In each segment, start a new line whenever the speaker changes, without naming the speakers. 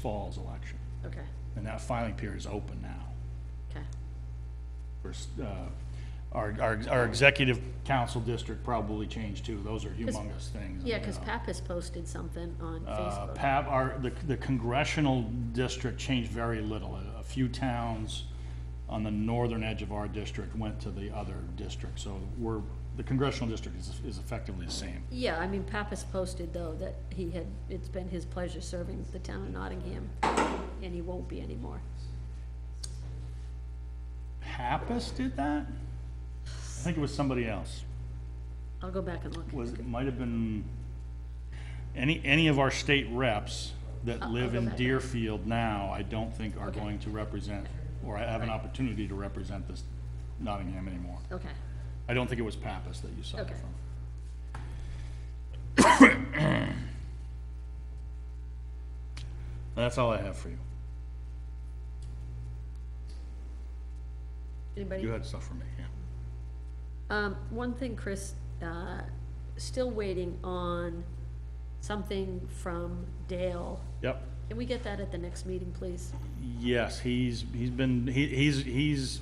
fall's election.
Okay,
And that filing period is open now.
okay,
We're s- uh, Our, our, our executive council district probably changed too. Those are humongous things.
yeah, because
you know.
Pappas posted something on
Uh,
Facebook.
Pap, our, the the congressional district changed very little. A- A few towns on the northern edge of our district went to the other district. So we're, the congressional district is, is effectively the same.
Yeah, I mean, Pappas posted though that he had, it's been his pleasure serving the town of Nottingham, and he won't be anymore.
Pappas did that? I think it was somebody else.
I'll go back and look.
was, it might have been, any, any of our state reps that
I'll
live
go
in
back.
Deerfield now, I don't think are
Okay.
going to represent, or have an opportunity to represent this Nottingham anymore.
Okay,
I don't think it was Pappas that you saw it
Okay.
from. That's all I have for you.
anybody?
You had stuff for me, yeah.
Um, one thing, Chris, uh, still waiting on something from Dale.
Yep.
Can we get that at the next meeting, please?
Yes, he's, he's been, he, he's, he's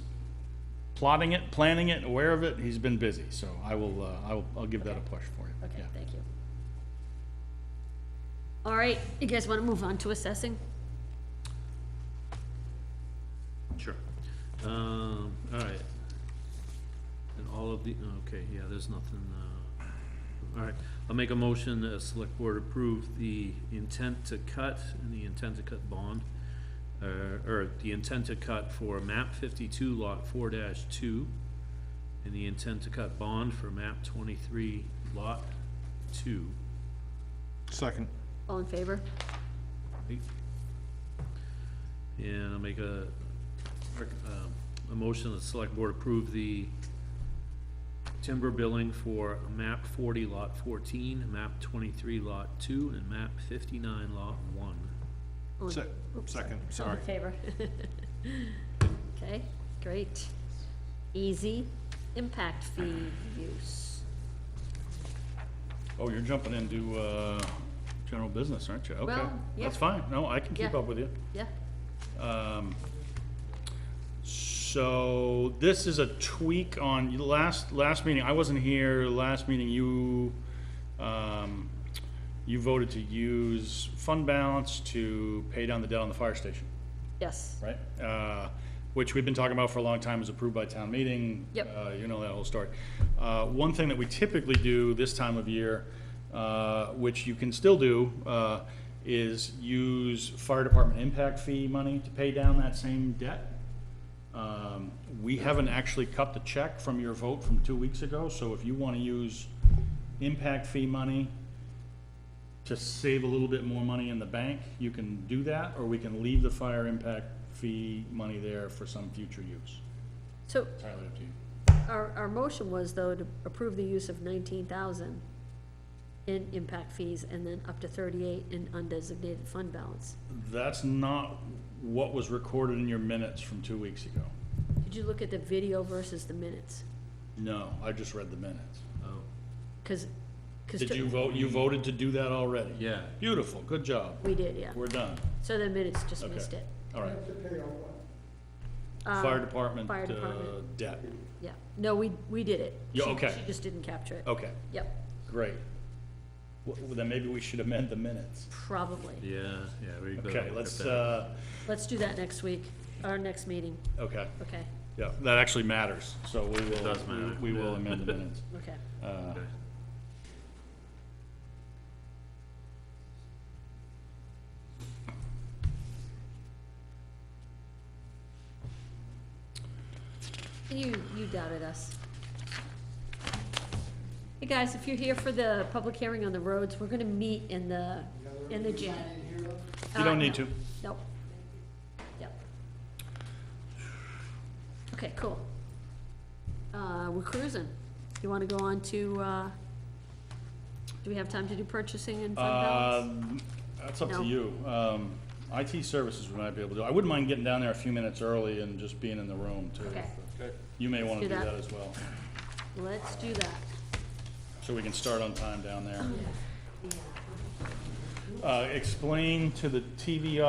plotting it, planning it, aware of it, he's been busy, so I will, uh, I will, I'll give that a push for you.
Okay,
Yeah.
thank you. All right, you guys want to move on to assessing?
Sure. Um, all right. And all of the, okay, yeah, there's nothing, uh, all right. I'll make a motion that the select board approve the intent to cut and the intent to cut bond, uh, or the intent to cut for map fifty-two lot four dash two, and the intent to cut bond for map twenty-three lot two.
Second.
All in favor?
And I'll make a, rec- um, a motion that the select board approve the timber billing for map forty lot fourteen, map twenty-three lot two, and map fifty-nine lot one.
All in-
Se-
oops,
second,
All
sorry.
in favor? Okay, great. Easy impact fee use.
Oh, you're jumping into, uh, general business, aren't you? Okay,
Well, yeah.
that's fine, no, I can keep
Yeah.
up with you.
Yeah,
Um, So, this is a tweak on, you- last, last meeting, I wasn't here, last meeting, you, um, you voted to use fund balance to pay down the debt on the fire station.
yes.
right? Uh, Which we've been talking about for a long time, is approved by town meeting.
Yep.
Uh, You know that whole story. Uh, One thing that we typically do this time of year, uh, which you can still do, uh, is use fire department impact fee money to pay down that same debt. Um, We haven't actually cut the check from your vote from two weeks ago, so if you want to use impact fee money to save a little bit more money in the bank, you can do that, or we can leave the fire impact fee money there for some future use.
So
Entirely up to you.
our, our motion was though to approve the use of nineteen thousand in impact fees and then up to thirty-eight in undesignated fund balance.
That's not what was recorded in your minutes from two weeks ago.
Did you look at the video versus the minutes?
No, I just read the minutes.
Oh,
Cause, 'cause
Did
to-
you vote, you voted to do that already?
yeah,
Beautiful, good job.
We did, yeah.
We're done.
So the minutes just
Okay.
missed it.
All right.
Um,
Fire department
fire
uh,
department.
debt.
Yeah, no, we, we did it.
Yeah,
She-
okay. Oh.
She just didn't capture it.
Okay,
Yep,
great. Well, Then maybe we should amend the minutes.
probably.
yeah, yeah, we better
Okay,
look at
let's,
that.
uh,
Let's do that next week, our next meeting.
okay.
Okay,
Yeah, that actually matters, so we will.
does matter,
We will
yeah.
amend the minutes.
okay.
Uh,
Okay.
You, you doubted us. Hey, guys, if you're here for the public hearing on the roads, we're gonna meet in the, in the gym.
You
Uh,
don't need
no.
to.
Nope. Yep. Okay, cool. Uh, we're cruising. You wanna go on to, uh, do we have time to do purchasing and fund balance?
Um, That's up
No.
to you. Um, IT services we might be able to, do. I wouldn't mind getting down there a few minutes early and just being in the room too.
Okay.
You may want to
do
do
that.
that as well,
Let's do that.
so we can start on time down there. Uh, explain to the TV